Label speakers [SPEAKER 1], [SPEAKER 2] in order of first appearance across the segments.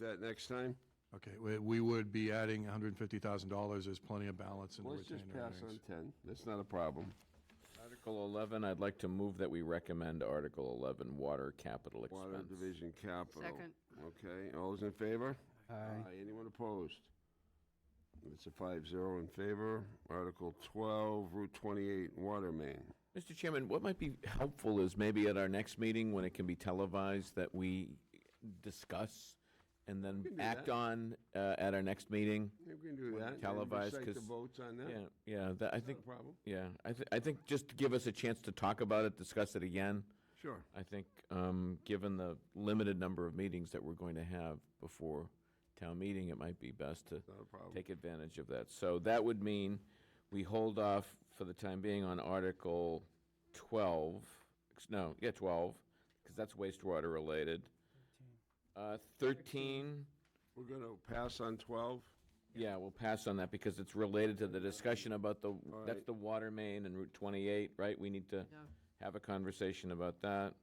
[SPEAKER 1] that next time?
[SPEAKER 2] Okay, we, we would be adding hundred and fifty thousand dollars, there's plenty of balance in the
[SPEAKER 1] Let's just
[SPEAKER 2] retained
[SPEAKER 1] pass
[SPEAKER 2] earnings.
[SPEAKER 1] on 10. That's not a problem.
[SPEAKER 3] Article 11, I'd like to move that we recommend Article 11, water capital
[SPEAKER 1] Water
[SPEAKER 3] expense.
[SPEAKER 1] Division Capital.
[SPEAKER 4] Second.
[SPEAKER 1] Okay, all those in favor? Aye. Anyone opposed? It's a five zero in favor. Article 12, Route 28, Water Main.
[SPEAKER 3] Mr. Chairman, what might be helpful is maybe at our next meeting, when it can be televised, that we discuss and then
[SPEAKER 1] can do
[SPEAKER 3] act
[SPEAKER 1] that.
[SPEAKER 3] on uh, at our next meeting.
[SPEAKER 1] Maybe we can do
[SPEAKER 3] Wanna
[SPEAKER 1] that. and
[SPEAKER 3] televise,
[SPEAKER 1] recite the
[SPEAKER 3] 'cause-
[SPEAKER 1] votes on that.
[SPEAKER 3] Yeah, yeah, that,
[SPEAKER 1] Not
[SPEAKER 3] I
[SPEAKER 1] a
[SPEAKER 3] think,
[SPEAKER 1] problem.
[SPEAKER 3] yeah, I, th- I think just to give us a chance to talk about it, discuss it again.
[SPEAKER 1] Sure.
[SPEAKER 3] I think, um, given the limited number of meetings that we're going to have before town meeting, it might be best to
[SPEAKER 1] Not a problem.
[SPEAKER 3] take advantage of that. So that would mean we hold off for the time being on Article 12, ex- no, yeah, 12, because that's wastewater related. Uh, 13,
[SPEAKER 1] We're going to pass on 12.
[SPEAKER 3] yeah, we'll pass on that because it's related to the discussion about the, that's
[SPEAKER 1] right.
[SPEAKER 3] the water main and Route 28, right? We need to
[SPEAKER 4] Yeah.
[SPEAKER 3] have a conversation about that.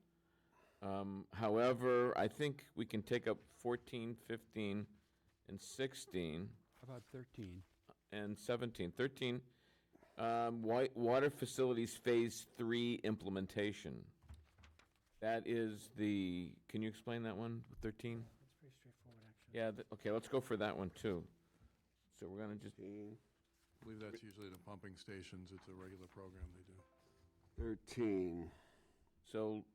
[SPEAKER 3] Um, However, I think we can take up 14, 15, and 16.
[SPEAKER 5] How about 13?
[SPEAKER 3] and 17, 13, um, wa- water facilities phase three implementation. That is the, can you explain that one, 13?
[SPEAKER 5] That's pretty straightforward, actually.
[SPEAKER 3] Yeah, th- okay, let's go for that one, too. So we're gonna just,
[SPEAKER 1] 13.
[SPEAKER 2] I believe that's usually the pumping stations, it's a regular program they do.
[SPEAKER 1] 13.
[SPEAKER 3] so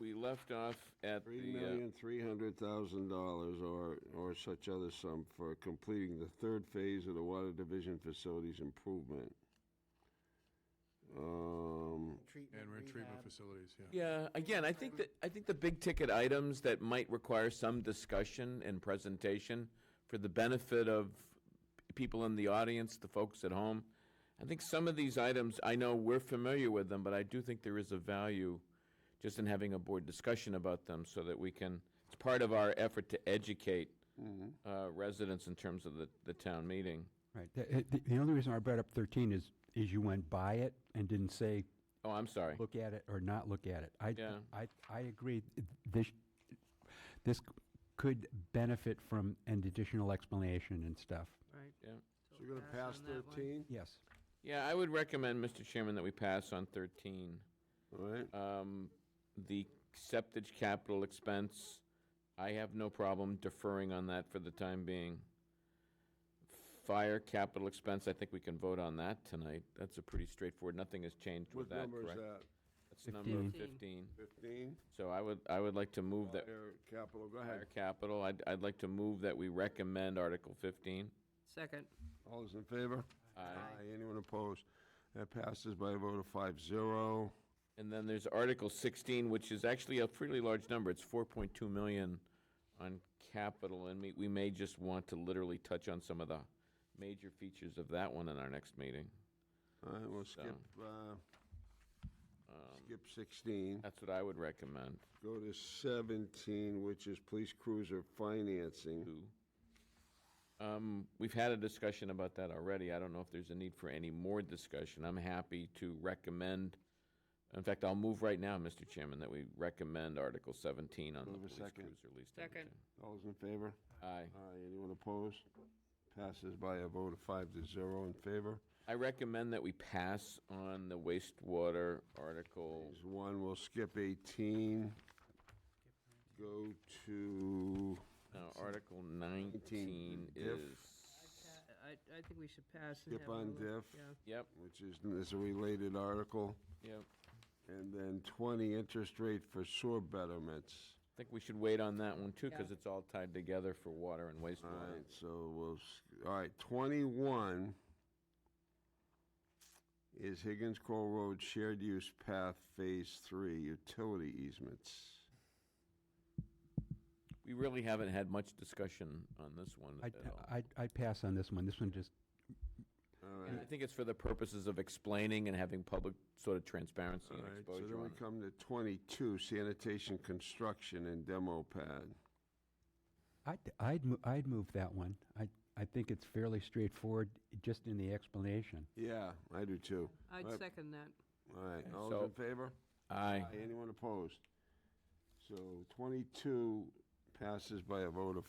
[SPEAKER 3] we left off at
[SPEAKER 1] Three
[SPEAKER 3] the, uh,
[SPEAKER 1] million, three hundred thousand dollars or, or such other sum for completing the third phase of the Water Division Facilities Improvement. Um,
[SPEAKER 2] And we're in treatment facilities, yeah.
[SPEAKER 3] yeah, again, I think that, I think the big ticket items that might require some discussion and presentation for the benefit of people in the audience, the folks at home. I think some of these items, I know we're familiar with them, but I do think there is a value just in having a board discussion about them so that we can, it's part of our effort to educate uh, residents in terms of the, the town meeting.
[SPEAKER 5] Right. The, uh, the- the only reason I brought up 13 is, is you went by it and didn't say,
[SPEAKER 3] Oh, I'm sorry.
[SPEAKER 5] look at it or not look at it. I,
[SPEAKER 3] Yeah.
[SPEAKER 5] I, I agree. th- This, this could benefit from an additional explanation and stuff.
[SPEAKER 4] Right.
[SPEAKER 3] Yeah.
[SPEAKER 1] so we're gonna
[SPEAKER 4] Pass
[SPEAKER 1] pass
[SPEAKER 4] on that one.
[SPEAKER 1] thirteen,
[SPEAKER 5] Yes.
[SPEAKER 3] Yeah, I would recommend, Mr. Chairman, that we pass on 13.
[SPEAKER 1] all right?
[SPEAKER 3] Um, The septic capital expense, I have no problem deferring on that for the time being. Fire capital expense, I think we can vote on that tonight. That's a pretty straightforward, nothing has changed with
[SPEAKER 1] What
[SPEAKER 3] that,
[SPEAKER 1] number is
[SPEAKER 3] correct?
[SPEAKER 1] that?
[SPEAKER 3] That's number 15.
[SPEAKER 4] Fifteen.
[SPEAKER 1] Fifteen?
[SPEAKER 3] So I would, I would like to move that,
[SPEAKER 1] Fire capital, go ahead.
[SPEAKER 3] fire capital, I'd, I'd like to move that we recommend Article 15.
[SPEAKER 4] Second.
[SPEAKER 1] All those in favor?
[SPEAKER 3] Aye.
[SPEAKER 1] Anyone opposed? That passes by a vote of five zero.
[SPEAKER 3] And then there's Article 16, which is actually a pretty large number. It's 4.2 million on capital, and we- we may just want to literally touch on some of the major features of that one in our next meeting.
[SPEAKER 1] All right, we'll
[SPEAKER 3] So-
[SPEAKER 1] skip, uh,
[SPEAKER 3] Um,
[SPEAKER 1] skip sixteen.
[SPEAKER 3] That's what I would recommend.
[SPEAKER 1] Go to seventeen, which is police cruiser financing.
[SPEAKER 3] Two. Um, We've had a discussion about that already. I don't know if there's a need for any more discussion. I'm happy to recommend, in fact, I'll move right now, Mr. Chairman, that we recommend Article 17 on the
[SPEAKER 1] Move a
[SPEAKER 3] police
[SPEAKER 1] second.
[SPEAKER 3] cruiser lease.
[SPEAKER 4] Second.
[SPEAKER 1] All those in favor?
[SPEAKER 3] Aye.
[SPEAKER 1] Aye, anyone opposed? Passes by a vote of five to zero in favor.
[SPEAKER 3] I recommend that we pass on the wastewater article.
[SPEAKER 1] There's one, we'll skip 18. Go to,
[SPEAKER 3] Now, uh, Article 19
[SPEAKER 1] Diff.
[SPEAKER 3] is,
[SPEAKER 4] I, I think we should pass. and
[SPEAKER 1] Skip
[SPEAKER 4] have a
[SPEAKER 1] on
[SPEAKER 4] little-
[SPEAKER 1] diff.
[SPEAKER 4] Yeah.
[SPEAKER 3] yep,
[SPEAKER 1] which is, is a related article,
[SPEAKER 3] yep.
[SPEAKER 1] and then 20, interest rate for sewer betterments.
[SPEAKER 3] I think we should wait on that one, too, because
[SPEAKER 4] Yeah.
[SPEAKER 3] it's all tied together for water and
[SPEAKER 1] All
[SPEAKER 3] wastewater.
[SPEAKER 1] right, so we'll, s- all right, 21 is Higgins Crow Road Shared Use Path Phase 3 Utility Easements.
[SPEAKER 3] We really haven't had much discussion on this one
[SPEAKER 5] I,
[SPEAKER 3] at all.
[SPEAKER 5] I, I pass on this one. This one just,
[SPEAKER 1] All right.
[SPEAKER 3] And I think it's for the purposes of explaining and having public sort of transparency
[SPEAKER 1] All
[SPEAKER 3] and
[SPEAKER 1] right, so
[SPEAKER 3] exposure
[SPEAKER 1] then we
[SPEAKER 3] on it.
[SPEAKER 1] come to 22, sanitation, construction, and demo pad.
[SPEAKER 5] I'd, I'd, mo- I'd move that one. I, I think it's fairly straightforward, just in the explanation.
[SPEAKER 1] Yeah, I do too.
[SPEAKER 4] I'd
[SPEAKER 1] Right.
[SPEAKER 4] second that.
[SPEAKER 1] All right,
[SPEAKER 3] Okay,
[SPEAKER 1] all
[SPEAKER 3] so-
[SPEAKER 1] those in favor?
[SPEAKER 3] Aye.
[SPEAKER 1] Anyone opposed? So 22 passes by a vote of